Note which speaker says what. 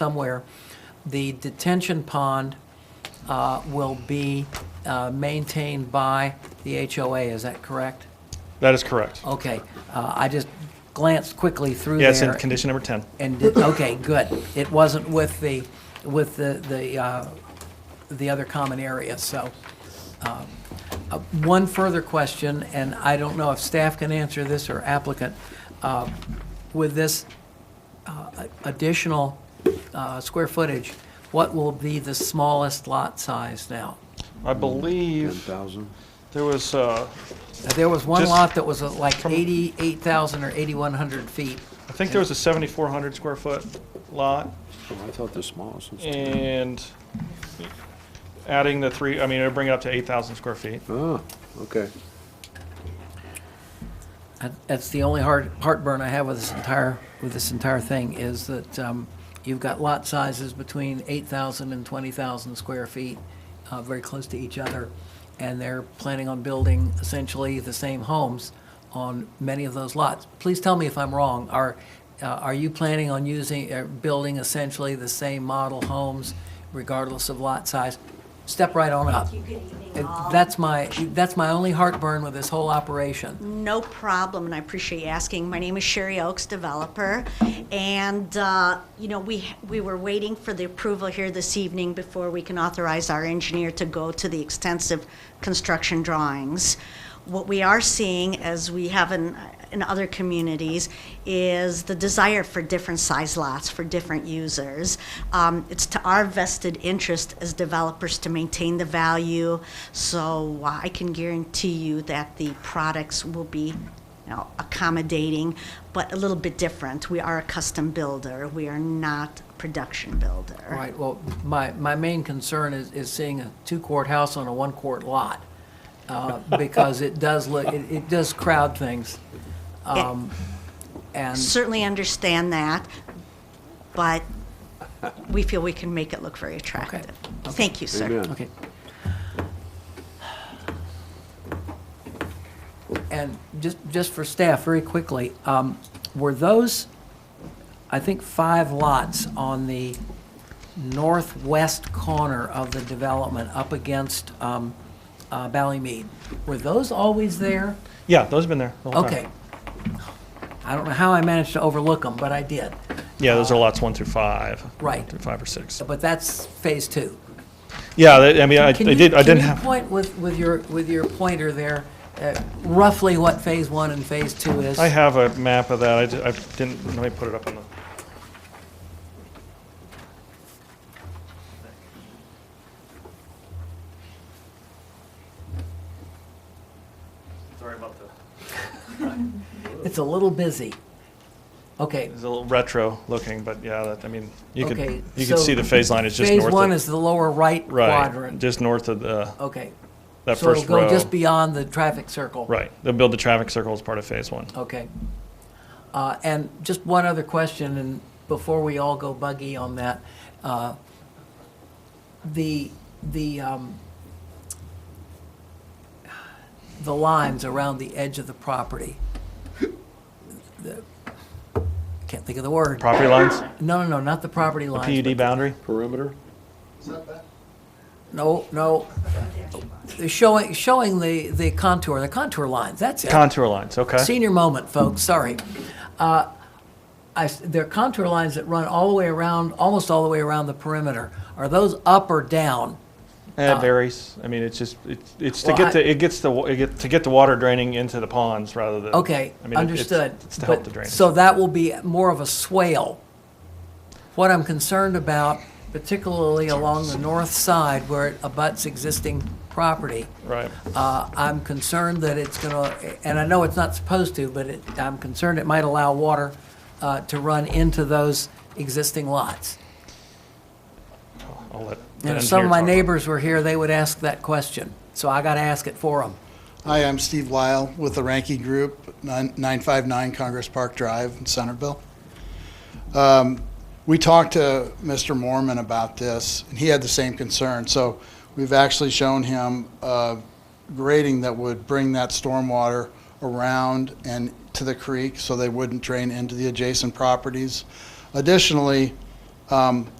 Speaker 1: somewhere, the detention pond uh, will be uh, maintained by the HOA, is that correct?
Speaker 2: That is correct.
Speaker 1: Okay, uh, I just glanced quickly through there.
Speaker 2: Yeah, it's in condition number 10.
Speaker 1: And, did- okay, good. It wasn't with the, with the, the, uh, the other common area, so. um, uh, One further question, and I don't know if staff can answer this or applicant. Uh, With this uh, additional uh, square footage, what will be the smallest lot size now?
Speaker 2: I believe
Speaker 3: 10,000?
Speaker 2: there was, uh,
Speaker 1: Now, There was one
Speaker 2: Just
Speaker 1: lot that was uh, like
Speaker 2: from-
Speaker 1: 88,000 or 8,100 feet.
Speaker 2: I think there was a 7,400 square foot lot
Speaker 3: Oh, I thought the smallest was 10.
Speaker 2: and adding the three, I mean, it'll bring it up to 8,000 square feet.
Speaker 3: Oh, okay.
Speaker 1: That- That's the only heart, heartburn I have with this entire, with this entire thing, is that um, you've got lot sizes between 8,000 and 20,000 square feet, uh, very close to each other, and they're planning on building essentially the same homes on many of those lots. Please tell me if I'm wrong. Are, uh, are you planning on using, uh, building essentially the same model homes regardless of lot size? Step right on up.
Speaker 4: Good evening,
Speaker 1: Uh,
Speaker 4: all.
Speaker 1: That's my, that's my only heartburn with this whole operation.
Speaker 4: No problem, and I appreciate you asking. My name is Sherry Oaks, developer, and, uh, you know, we, we were waiting for the approval here this evening before we can authorize our engineer to go to the extensive construction drawings. What we are seeing, as we have in, in other communities, is the desire for different size lots for different users. Um, It's to our vested interest as developers to maintain the value, so uh, I can guarantee you that the products will be, you know, accommodating, but a little bit different. We are a custom builder, we are not a production builder.
Speaker 1: Right, well, my, my main concern is, is seeing a two-quart house on a one-quart lot, uh, because it does look, it, it does crowd things. Um, And,
Speaker 4: Certainly understand that, but we feel we can make it look very attractive. Thank you, sir.
Speaker 3: Amen.
Speaker 1: okay. And just, just for staff, very quickly, um, were those, I think, five lots on the northwest corner of the development up against um, uh, Ballymead, were those always there?
Speaker 2: Yeah, those have been there the whole time.
Speaker 1: Okay. I don't know how I managed to overlook them, but I did.
Speaker 2: Yeah, those are lots one through five.
Speaker 1: Right.
Speaker 2: One Through five or six.
Speaker 1: But that's phase two.
Speaker 2: Yeah, they- I mean, I I
Speaker 1: Can you-
Speaker 2: did, I didn't
Speaker 1: Can you
Speaker 2: have,
Speaker 1: point with, with your, with your pointer there, uh, roughly what phase one and phase two is?
Speaker 2: I have a map of that. I d- I didn't, let me put it up on the. Sorry about the.
Speaker 1: It's a little busy. Okay.
Speaker 2: It's a little retro looking, but yeah, that, I mean, you could,
Speaker 1: Okay,
Speaker 2: you
Speaker 1: so
Speaker 2: could see the phase line is just north of.
Speaker 1: Phase one is the lower right
Speaker 2: Right,
Speaker 1: quadrant.
Speaker 2: just north of the,
Speaker 1: Okay.
Speaker 2: that first
Speaker 1: So it'll go
Speaker 2: row.
Speaker 1: just beyond the traffic circle.
Speaker 2: Right, they'll build the traffic circle as part of phase one.
Speaker 1: Okay. Uh, And just one other question, and before we all go buggy on that, uh, the, the, um, the lines around the edge of the property, the- can't think of the word.
Speaker 2: Property lines,
Speaker 1: No, no, no, not the property lines.
Speaker 2: PUD boundary?
Speaker 3: Perimeter?
Speaker 1: but- No, no. They're Showing, showing the, the contour, the contour lines, that's it.
Speaker 2: Contour lines, okay.
Speaker 1: Senior moment, folks, sorry. Uh, I s- There are contour lines that run all the way around, almost all the way around the perimeter. Are those up or down? uh,
Speaker 2: It varies, I mean, it's just, it's, it's to
Speaker 1: Well, I-
Speaker 2: get the, it gets the, wa- it get, to get the water draining into the ponds rather than.
Speaker 1: Okay,
Speaker 2: I mean, it- it's-
Speaker 1: understood.
Speaker 2: It's to help
Speaker 1: But-
Speaker 2: the drainage.
Speaker 1: So that will be more of a swale. What I'm concerned about, particularly along the north side where it abuts existing property,
Speaker 2: Right,
Speaker 1: Uh, I'm concerned that it's going to, and I know it's not supposed to, but it- I'm concerned it might allow water uh, to run into those existing lots.
Speaker 2: I'll let. the
Speaker 1: And if some
Speaker 2: engineer
Speaker 1: of my
Speaker 2: talk about it.
Speaker 1: neighbors were here, they would ask that question, so I got to ask it for them.
Speaker 5: Hi, I'm Steve Lyle with the Ranky Group, nine- 959 Congress Park Drive in Centerville. Um, We talked to Mr. Mormon about this, and he had the same concern. So we've actually shown him uh, grading that would bring that stormwater around and to the creek so they wouldn't drain into the adjacent properties. Additionally, Um,